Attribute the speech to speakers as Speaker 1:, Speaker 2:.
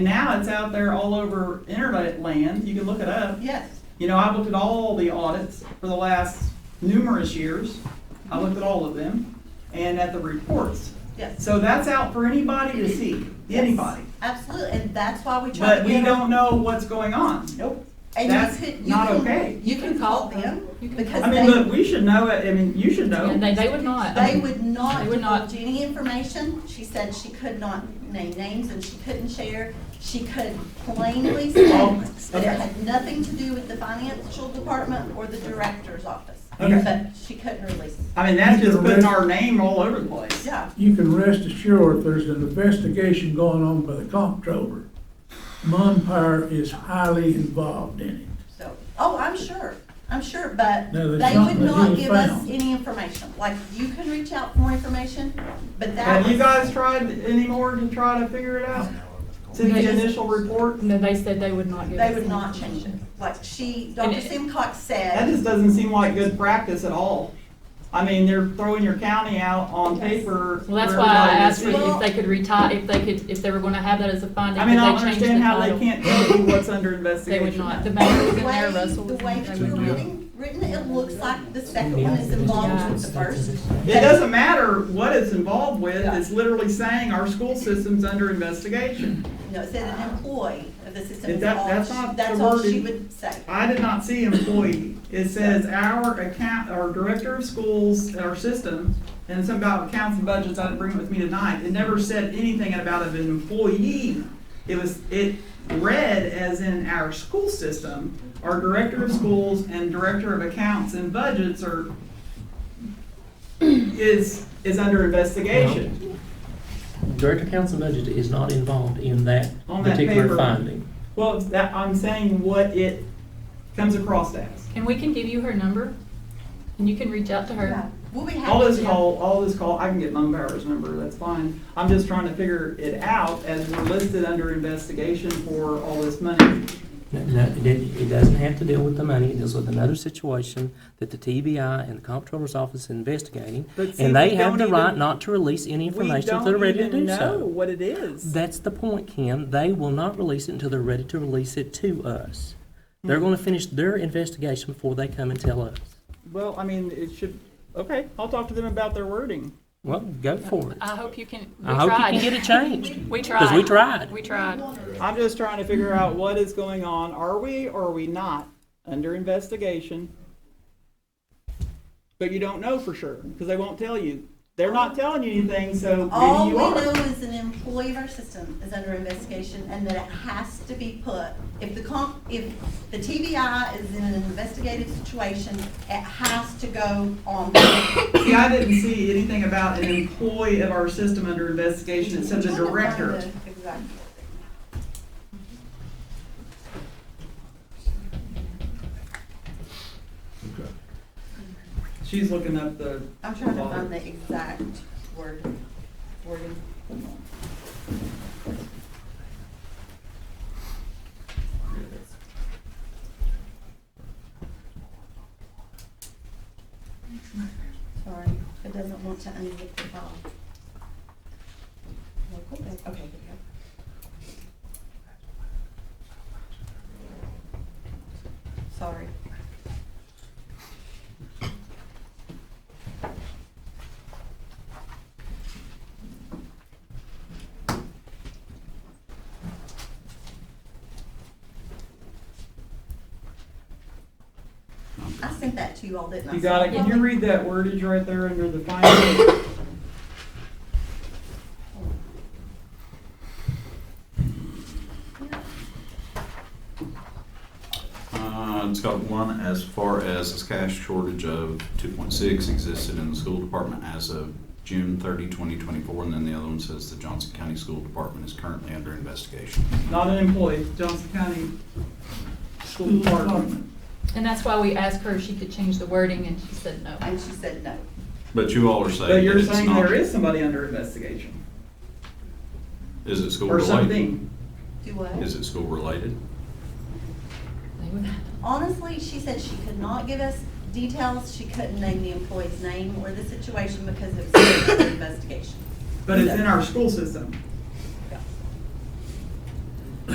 Speaker 1: now it's out there all over internet land. You can look it up.
Speaker 2: Yes,
Speaker 1: You know, I've looked at all the audits for the last numerous years. I looked at all of them and at the reports.
Speaker 2: yes.
Speaker 1: So that's out for anybody to see, anybody.
Speaker 2: Yes, Absolutely, and that's why we try to.
Speaker 1: But we
Speaker 2: get our-
Speaker 1: don't know what's going on.
Speaker 2: Nope.
Speaker 1: That's not okay.
Speaker 2: You can call them because
Speaker 1: I mean,
Speaker 2: they,
Speaker 1: look, we should know it. I mean, you should
Speaker 3: And
Speaker 1: know.
Speaker 3: they, they would not.
Speaker 2: they would not
Speaker 3: They would not.
Speaker 2: divulge any information. She said she could not name names and she couldn't share. She could plainly state that it
Speaker 1: okay.
Speaker 2: had nothing to do with the financial department or the director's office.
Speaker 1: Okay.
Speaker 2: But she couldn't release it.
Speaker 1: I mean, that's just
Speaker 4: You're
Speaker 1: putting
Speaker 4: right.
Speaker 1: our name all over the place.
Speaker 2: Yeah,
Speaker 4: You can rest assured there's an investigation going on by the comptroller. Mumpire is highly involved in it.
Speaker 2: so, oh, I'm sure, I'm sure, but
Speaker 4: No, there's
Speaker 2: they would
Speaker 4: something that
Speaker 2: not
Speaker 4: was
Speaker 2: give us
Speaker 4: found.
Speaker 2: any information. Like, you can reach out for more information, but that
Speaker 1: Have you
Speaker 2: was,
Speaker 1: guys tried anymore to try to figure it out? Since the initial report?
Speaker 3: Um, No, they said they would not give
Speaker 2: they
Speaker 3: us
Speaker 2: would not
Speaker 3: information.
Speaker 2: change it. Like, she,
Speaker 3: And
Speaker 2: Dr.
Speaker 3: it-
Speaker 2: Simcox
Speaker 1: That
Speaker 2: said,
Speaker 1: just doesn't seem like good practice at all. I mean, they're throwing your county out on paper.
Speaker 3: Well, that's
Speaker 1: for
Speaker 3: why I
Speaker 1: everybody to
Speaker 3: asked for
Speaker 1: see.
Speaker 3: if they could retire, if they could, if they were gonna have that as a finding,
Speaker 1: I
Speaker 3: could
Speaker 1: mean, I don't
Speaker 3: they change the
Speaker 1: understand how they
Speaker 3: title?
Speaker 1: can't tell you what's under
Speaker 3: They
Speaker 1: investigation.
Speaker 3: would not. The
Speaker 2: the
Speaker 3: mayor was in there,
Speaker 2: way,
Speaker 3: Russell was
Speaker 2: the
Speaker 3: in
Speaker 2: way
Speaker 3: there.
Speaker 2: that you're writing, written, it looks like the second one is involved with the first.
Speaker 1: It doesn't matter what it's involved with, it's literally saying our school system's under investigation.
Speaker 2: No, it said an employee of the system
Speaker 1: If
Speaker 2: is
Speaker 1: that-
Speaker 2: all,
Speaker 1: that's not
Speaker 2: that's
Speaker 1: the
Speaker 2: all
Speaker 1: wording.
Speaker 2: she would say.
Speaker 1: I did not see employee, it says our account, our director of schools, our system, and something about accounts and budgets, I didn't bring it with me tonight, it never said anything about an employee. It was, it read as in our school system, our director of schools and director of accounts and budgets are, is, is under investigation.
Speaker 5: Director Council Budget is not involved in that
Speaker 1: On that paper.
Speaker 5: particular finding.
Speaker 1: Well, that, I'm saying what it comes across as.
Speaker 3: And we can give you her number, and you can reach out to her.
Speaker 2: We'll be
Speaker 1: All
Speaker 2: happy
Speaker 1: this
Speaker 2: to.
Speaker 1: call, all this call, I can get Mum Power's number, that's fine. I'm just trying to figure it out as we're listed under investigation for all this money.
Speaker 5: No, no, it, didn't- it doesn't have to deal with the money, it deals with another situation that the TBI and the Comptroller's Office is investigating.
Speaker 1: But see,
Speaker 5: And they
Speaker 1: we
Speaker 5: have the
Speaker 1: don't
Speaker 5: right
Speaker 1: even-
Speaker 5: not to release any information if they're ready to do so.
Speaker 1: what it is.
Speaker 5: That's the point, Ken. They will not release it until they're ready to release it to us. They're gonna finish their investigation before they come and tell us.
Speaker 1: Well, I mean, it should, okay, I'll talk to them about their wording.
Speaker 5: Well, go for it.
Speaker 3: I hope you can, we
Speaker 5: I hope you
Speaker 3: Uh, tried.
Speaker 5: can get it changed,
Speaker 3: We tried.
Speaker 5: because we tried.
Speaker 3: We tried.
Speaker 1: I'm just trying to figure out what is going on. Are we or are we not under investigation? But you don't know for sure, because they won't tell you. They're not telling you anything, so
Speaker 2: All
Speaker 1: maybe
Speaker 2: we
Speaker 1: you
Speaker 2: know
Speaker 1: are.
Speaker 2: is an employee of our system is under investigation and that it has to be put, if the comp, if the TBI is in an investigative situation, it has to go on.
Speaker 1: See, I didn't see anything about an employee of our system under investigation, it said the director.
Speaker 2: Exactly.
Speaker 1: She's looking up the,
Speaker 2: I'm trying to find the exact word, wording. Sorry, it doesn't want to unzip the file. Local bid- Okay, here we go. Sorry. I sent that to you all, didn't I?
Speaker 1: you got it, can you read that wordage right there under the final?
Speaker 6: Uh, It's got one as far as this cash shortage of two point six existed in the school department as of June 30, 2024, and then the other one says the Johnson County School Department is currently under investigation.
Speaker 1: Not an employee, Johnson County School Department.
Speaker 3: And that's why we asked her if she could change the wording, and she said no.
Speaker 2: And she said no.
Speaker 6: But you all are saying
Speaker 1: But
Speaker 6: that
Speaker 1: you're
Speaker 6: it's
Speaker 1: saying
Speaker 6: not-
Speaker 1: there is somebody under investigation,
Speaker 6: Is it school
Speaker 1: or
Speaker 6: related?
Speaker 1: something.
Speaker 2: Do what?
Speaker 6: Is it school related?
Speaker 3: They would not.
Speaker 2: Honestly, she said she could not give us details. She couldn't name the employee's name or the situation because it was an investigation.
Speaker 1: But it's in our school system.